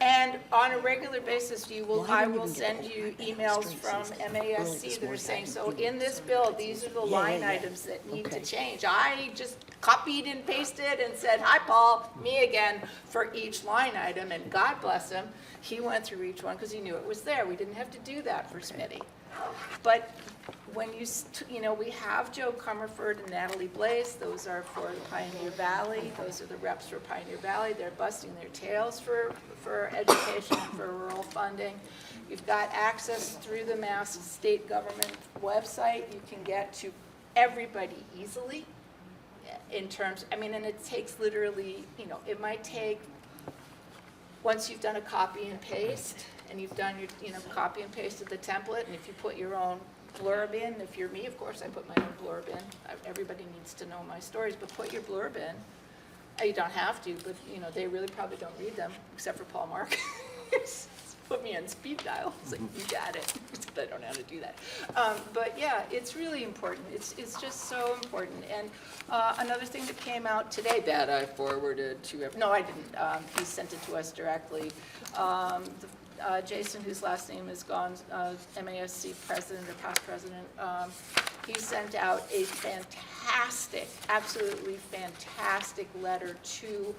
And on a regular basis, you will, I will send you emails from MASC that are saying, so in this bill, these are the Yeah, yeah, line yeah. items that need to Okay. change. I just copied and pasted and said, hi, Paul, me again, for each line item, and God bless him, he went through each one because he knew it was there. We didn't have to do that for Smitty. But when you, st- you know, we have Joe Comerford and Natalie Blaze, those are for Pioneer Valley, those are the reps for Pioneer Valley, they're busting their tails for, for education, for rural funding. You've got access through the Mass State Government website, you can get to everybody easily eh, in terms, I mean, and it takes literally, you know, it might take once you've done a copy and paste, and you've done your, you know, copy and paste of the template, and if you put your own blurb in, if you're me, of course, I put my own blurb in. I- Everybody needs to know my stories, but put your blurb in. Uh, You don't have to, but, you know, they really probably don't read them, except for Paul Marcus. Put me on speed dial, it's like, you got it, but I don't know how to do that. Um, But yeah, it's really important, it's, it's just so important. And uh, another thing that came out today that I forwarded to, ev- no, I didn't, Um, he sent it to us directly. Um, the- uh, Jason, whose last name is gone, uh, MASC president or past president, um, he sent out a fantastic, absolutely fantastic letter to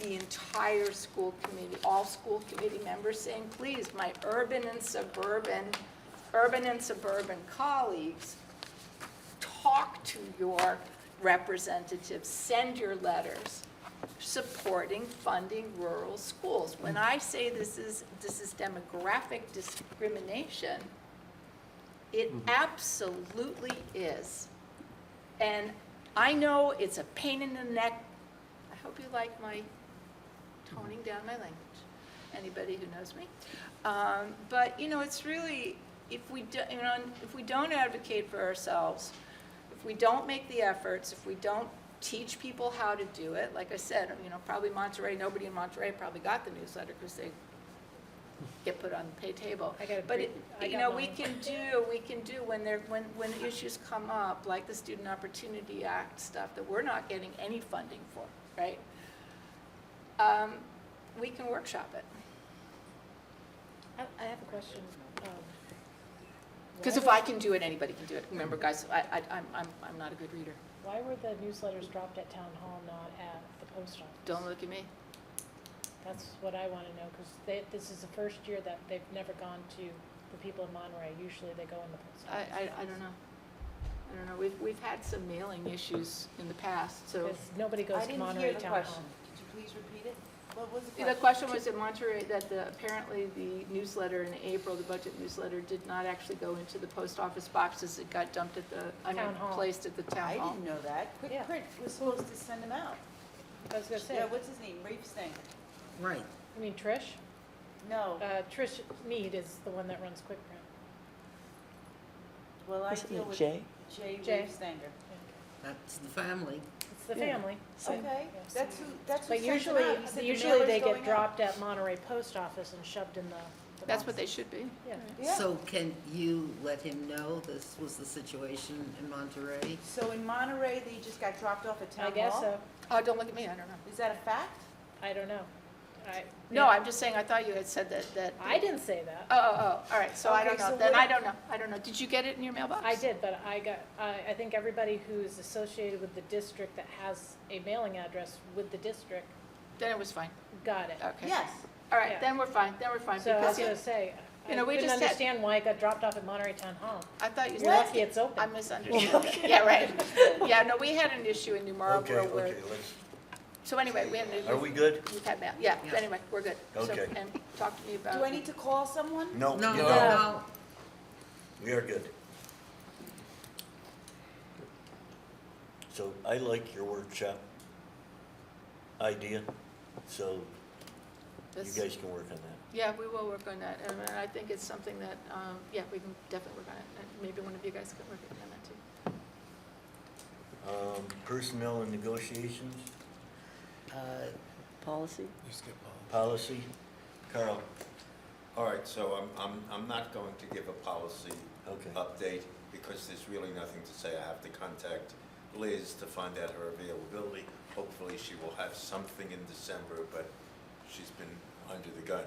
the entire school committee, all school committee members saying, please, my urban and suburban, urban and suburban colleagues, talk to your representatives, send your letters supporting funding rural schools. When I say this is, this is demographic discrimination, it absolutely is. And I know it's a pain in the neck. I hope you like my toning down my language, anybody who knows me. Um, But, you know, it's really, if we, do- you know, if we don't advocate for ourselves, if we don't make the efforts, if we don't teach people how to do it, like I said, you know, probably Monterey, nobody in Monterey probably got the newsletter because they get put on the pay table. I got a But, pre- it- I you got know, we mine. can do, we can do when there, when, when issues come up, like the Student Opportunity Act stuff that we're not getting any funding for, right? Um, We can workshop it. I I have a question. um, Because if why I can do it, anybody can do it. Remember, guys, I, I, I'm, I'm, I'm not a good reader. were- Why were the newsletters dropped at town hall, not at the post office? Don't look at me. That's what I want to know, because this is the first year that they've never gone to the people in Monterey. Usually they go in the post I, office. I, I don't know. I don't know. We've, we've had some mailing issues in the past, so. Because nobody goes to Monterey town hall. Could you please repeat it? What was the The question question? was in Monterey that the, apparently the newsletter in April, the budget newsletter, did not actually go into the post office boxes. It got dumped at the, I mean, Town hall. placed at the town I hall. didn't know that. Quick Yeah. Print was supposed to send them out. I was going to say, Yeah, what's his name? Reeves thing. Right. you mean Trish? No, Uh, Trish Mead is the one that runs Quick Print. well, I Isn't deal it with Jay Jay? Jay. Reeves Sanger. That's the family. It's the Yeah. family. Okay, yeah, that's who, that's who But sent them usually, out. He said the usually mailer's they going get out. dropped at Monterey post office and shoved in the. the That's what they box. should be. Yeah. Yeah. So can you let him know this was the situation in Monterey? So in Monterey, they just got dropped off at town I hall? guess so. Oh, don't look at me. I don't know. Is that a fact? I don't know. I. No, yeah. I'm just saying, I thought you had said that, that. I didn't say that. Oh, oh, oh, all right, so I Okay, don't know, so then what- I don't know, I don't know, did you get it in your mailbox? I did, but I got, I, I think everybody who's associated with the district that has a mailing address with the district Then it was fine, got it. okay. Yes. All right, yeah. then we're fine, then we're fine, So I was Uh, because gonna you- say, I you know, we couldn't just had- understand why it got dropped off at Monterey Town Hall. I thought you You're lucky said, it's open. I misunderstood, yeah, right. Yeah, no, we had an issue in New Okay, Marlboro where, okay, let's, so anyway, we had an are issue, we good? we've had that, yeah, Yeah. but anyway, we're good. So- Okay. And talk to me about. Do I need to call someone? No, No, Oh, you no, don't. no. we are good. So I like your workshop idea, so you this? guys can work on that. Yeah, we will work on that, and I think it's something that, um, yeah, we can definitely work on it, and maybe one of you guys could work on that too. Um, Personnel and negotiations, Uh, Policy? policy, Carl, All right, so I'm, I'm, I'm not going to give a policy Okay. update because there's really nothing to say. I have to contact Liz to find out her availability. Hopefully, she will have something in December, but she's been under the gun.